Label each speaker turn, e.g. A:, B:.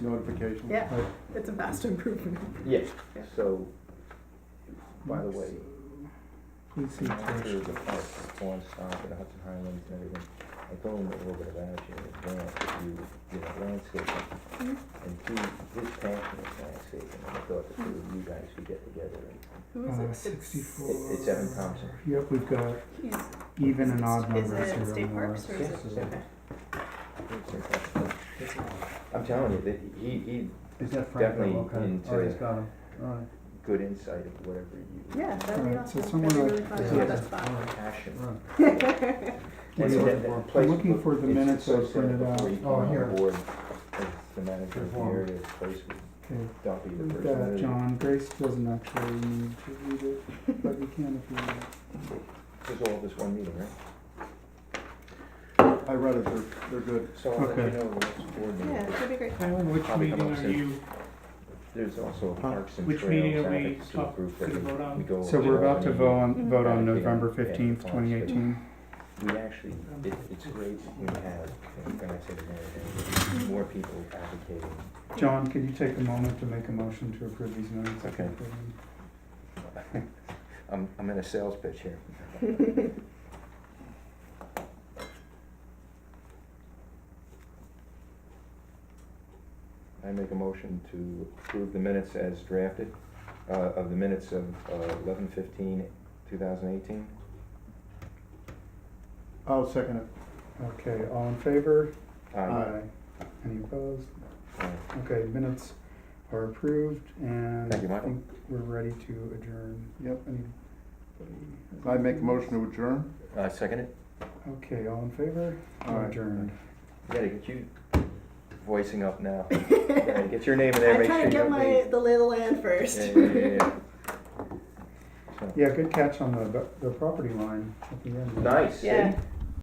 A: notification.
B: Yeah. It's a vast improvement.
C: Yeah,
B: Yeah.
C: so, by the way,
A: Please see.
C: I'm not sure
A: attached.
C: the park, the Swan Stop, and Hudson Highlands and everything, I told him a little bit about you, as well, if you, you know, landscaping.
B: Mm-hmm.
C: And he, his passion is landscaping, and I thought the two of you guys should get together and,
B: Who is it?
A: Uh,
B: It's-
A: sixty-four.
C: it's Evan Thompson.
A: Yep, we've got
B: he's-
A: even and odd
B: Is
A: numbers
B: it
A: here
B: state
A: on the
B: parks
A: list.
B: or is it?
C: Yeah.
B: okay.
C: I'm telling you, that he, he,
D: Is that Frank?
C: Definitely
D: Okay.
C: into-
D: Oh, he's got him, alright,
C: good insight of whatever you.
B: Yeah, that'd be
A: Alright, so
B: awesome.
A: someone
B: That'd be
A: like-
B: really fun.
C: Yeah.
B: That's fun.
C: Passion.
D: right.
C: And
A: Yeah.
C: that- that
D: I'm
C: place
A: looking
C: was-
A: for the
C: it's
A: minutes
C: so
A: I
C: set
A: printed
C: before
A: out.
C: you came
D: Oh,
C: on
D: here.
C: board As the manager of the
D: Here's one.
C: area, the place would
A: Okay,
C: dump you the
A: we've
C: first
A: got
C: minute.
A: John, Grace doesn't actually need to read it, but you can if you want.
C: There's all this one meeting, right?
A: I read it, they're, they're good.
C: So I'll let you
A: Okay.
C: know the next board
B: Yeah,
C: meeting.
B: that'd be great.
E: Alan, which
C: Probably come
E: meeting
C: up
E: are
C: soon.
E: you,
C: There's also a Parks and
E: which meeting
C: Trails
E: are we
C: advocacy
E: talk-
C: group that
E: gonna
C: we-
E: vote on?
C: we go.
A: So we're about to
C: and
A: vote on, vote on
C: Yeah.
A: November fifthifteenth, twenty eighteen.
C: We actually, it, it's great when we have, and I say the mayor, and more people advocating.
A: John, can you take a moment to make a motion to approve these minutes?
C: Okay. I'm, I'm in a sales pitch here. I make a motion to approve the minutes as drafted, uh, of the minutes of uh, eleven fifteen, two thousand eighteen.
A: I'll second it. Okay, all in favor?
C: Aye.
A: Any opposed?
C: Aye.
A: Okay, minutes are approved and I
C: Thank you, Michael.
A: think we're ready to adjourn. Yep.
F: I make a motion to adjourn?
C: Uh, second it?
A: Okay, all in favor?
F: Aye.
A: Adjourned.
C: You gotta get you voicing up now. Yeah, Get your name in there,
B: I'm
C: make sure
B: trying to
C: you
B: get
C: don't
B: my,
C: leave.
B: the lay of the land first.
C: Yeah, yeah, yeah, yeah. So-
A: Yeah, good catch on the, the property line at the end.
C: Nice, see?
B: Yeah.